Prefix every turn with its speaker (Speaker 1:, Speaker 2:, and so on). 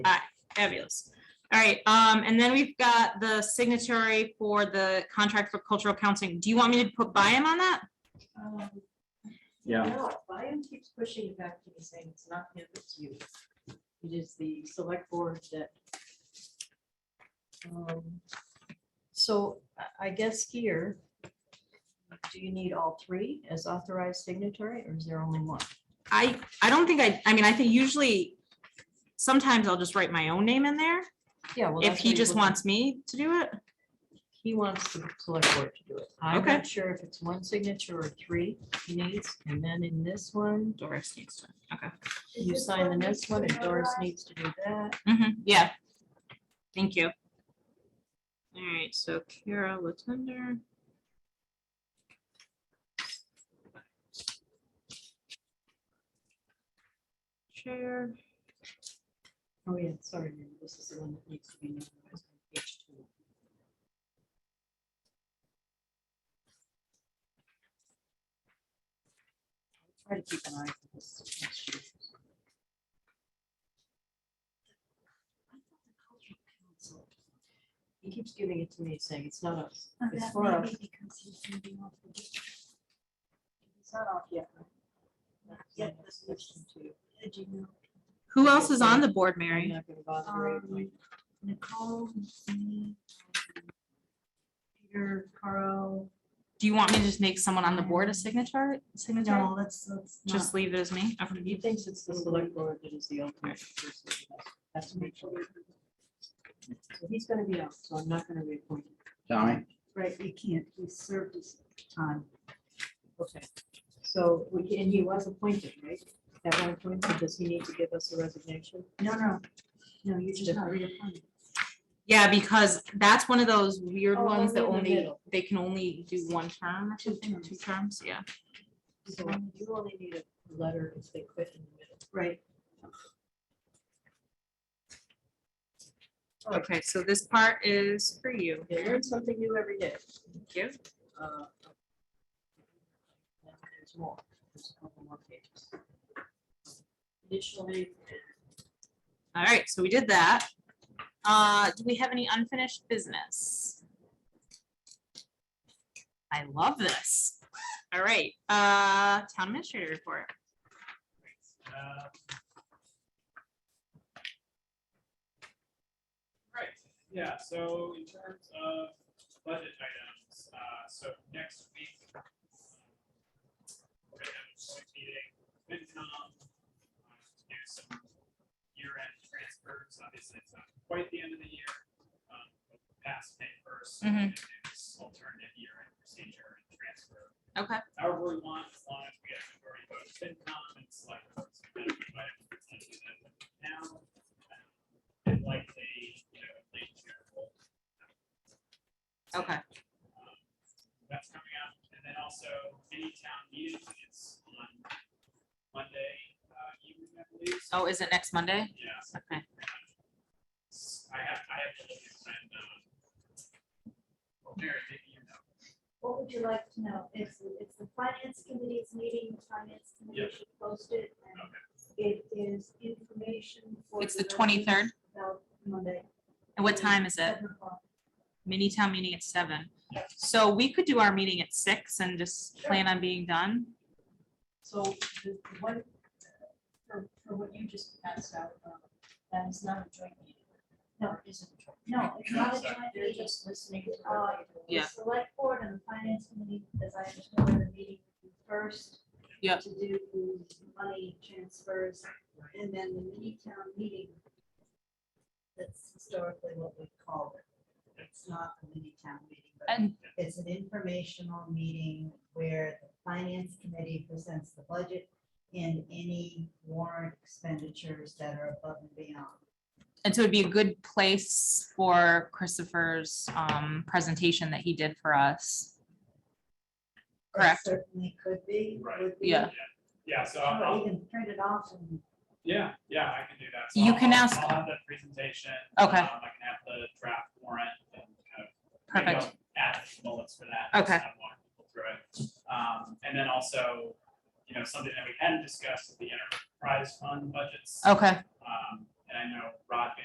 Speaker 1: Aye, fabulous. All right, um, and then we've got the signatory for the contract for cultural counseling. Do you want me to put by him on that?
Speaker 2: Um,
Speaker 3: Yeah,
Speaker 2: No, Brian keeps pushing it back to me saying it's not him, it's you. It is the select board that. Um, So I, I guess here, do you need all three as authorized signatory or is there only one?
Speaker 1: I, I don't think I, I mean, I think usually, sometimes I'll just write my own name in there
Speaker 2: Yeah. well,
Speaker 1: if
Speaker 2: that's
Speaker 1: he
Speaker 2: what
Speaker 1: just
Speaker 2: looking-
Speaker 1: wants me to do it.
Speaker 2: He wants the select board to do it. I'm
Speaker 1: Okay.
Speaker 2: not sure if it's one signature or three he needs. And then in this one,
Speaker 1: Doris needs to, okay.
Speaker 2: you sign the next one and Doris needs to do that.
Speaker 1: Mhm, yeah. Thank you. All right, so Kara Latender. Chair.
Speaker 2: Oh, yeah, sorry, Mary, this is the one that needs to be notarized. on page two. I'll Try to keep an eye for this. next year. He keeps giving it to me, saying it's not us,
Speaker 4: Oh,
Speaker 2: it's
Speaker 4: that
Speaker 2: for
Speaker 4: may
Speaker 2: us.
Speaker 4: be because he's moving off the district.
Speaker 2: It's not off yet. right?
Speaker 4: yet.
Speaker 2: Not this question to you.
Speaker 4: Uh, Do you know
Speaker 1: Who else is on the board,
Speaker 2: I'm
Speaker 1: Mary?
Speaker 2: not gonna bother Mary
Speaker 4: Um,
Speaker 2: Lloyd.
Speaker 4: Nicole, me, um, Peter, Carl?
Speaker 1: Do you want me to just make someone on the board a signature,
Speaker 4: No,
Speaker 1: signature?
Speaker 4: let's, let's
Speaker 1: Just
Speaker 4: not.
Speaker 1: leave it as me? Okay.
Speaker 2: He thinks it's the select board that is the ultimate. exclusive. That's what he told me. So He's gonna be out, so I'm not gonna reappoint him.
Speaker 3: Tommy,
Speaker 4: Right, we can't. He served his time.
Speaker 2: Okay. So, we can- and he was appointed, right? At one point, so does he need to give us a resignation?
Speaker 4: No, no. No, you're just not reappointed.
Speaker 1: Yeah, because that's one of those weird
Speaker 2: Oh,
Speaker 1: ones that
Speaker 2: only in the
Speaker 1: only,
Speaker 2: middle.
Speaker 1: they can only do one term, or
Speaker 4: Two
Speaker 1: something,
Speaker 4: terms.
Speaker 1: two terms, yeah.
Speaker 2: So you only need a letter if they quit in the middle.
Speaker 4: Right.
Speaker 1: Okay, so this part is for you.
Speaker 2: You learn something new every day.
Speaker 1: Thank you.
Speaker 2: Uh, now There's more, there's a couple more pages. Additionally,
Speaker 1: All right, so we did that. Uh, do we have any unfinished business? I love this. All right, uh, town administrator report.
Speaker 5: Uh, Right, yeah, so in terms of budget items, uh, so next week. um, We're gonna have a joint meeting, with FinCom, uh, to do some year-end transfers, obviously it's not quite the end of the year. um, but Past May first, we're gonna do this alternative year-end procedure and transfer
Speaker 1: Okay,
Speaker 5: however we want, as long as we have to worry about FinCom and select. boards. And we might have to do that Now, um, and likely, you know, late June. we'll-
Speaker 1: okay,
Speaker 5: um, That's coming up, and then also any town meeting is on Monday uh, evening, I believe. so-
Speaker 1: oh, is it next Monday?
Speaker 5: Yeah. so
Speaker 1: Okay,
Speaker 5: I have, I have to look at when, uh, well, Mary, maybe you know.
Speaker 6: What would you like to know? It's, it's the finance committee's meeting, the finance
Speaker 5: Yeah.
Speaker 6: committee should post it. and It is information for.
Speaker 1: it's the
Speaker 6: residents
Speaker 1: twenty-third,
Speaker 6: About Monday.
Speaker 1: and what time is it?
Speaker 6: seven o'clock.
Speaker 1: Mini town meeting at seven, so we could do our meeting at six and just plan on being done.
Speaker 2: So the the one, uh, for, for what you just passed out, um, that is not a joint meeting. No, it isn't. a joint meeting.
Speaker 6: No, it's not a
Speaker 5: Sorry.
Speaker 6: joint
Speaker 2: They're
Speaker 6: meeting.
Speaker 2: just listening to.
Speaker 6: Uh,
Speaker 2: what they-
Speaker 6: The
Speaker 1: Yeah.
Speaker 6: Select board and the finance committee, as I understand, the meeting first.
Speaker 1: Yep.
Speaker 6: To do money transfers and then the mini town meeting.
Speaker 4: That's historically what we call it. It's not a mini town meeting, but
Speaker 1: And
Speaker 4: it's an informational meeting where the finance committee presents the budget and any warrant expenditures that are above and beyond.
Speaker 1: And so it'd be a good place for Christopher's um presentation that he did for us.
Speaker 4: That
Speaker 1: Correct.
Speaker 4: Certainly could be.
Speaker 5: Right.
Speaker 4: would be.
Speaker 1: Yeah.
Speaker 5: Yeah, so I'll,
Speaker 4: Or
Speaker 5: I'll-
Speaker 4: even print it off and
Speaker 5: Yeah, yeah, I can do that. So
Speaker 1: You
Speaker 5: I'll-
Speaker 1: can
Speaker 5: I'll-
Speaker 1: ask-
Speaker 5: I'll have the presentation.
Speaker 1: Okay.
Speaker 5: um, I can have the draft warrant and kind of. maybe I'll Add a few bullets for that.
Speaker 1: Okay.
Speaker 5: just have more people Through it. Um, and then also,
Speaker 1: Oh.
Speaker 5: you know, something that we hadn't discussed is the enterprise fund budgets.
Speaker 1: Okay,
Speaker 5: Um, And I know Rod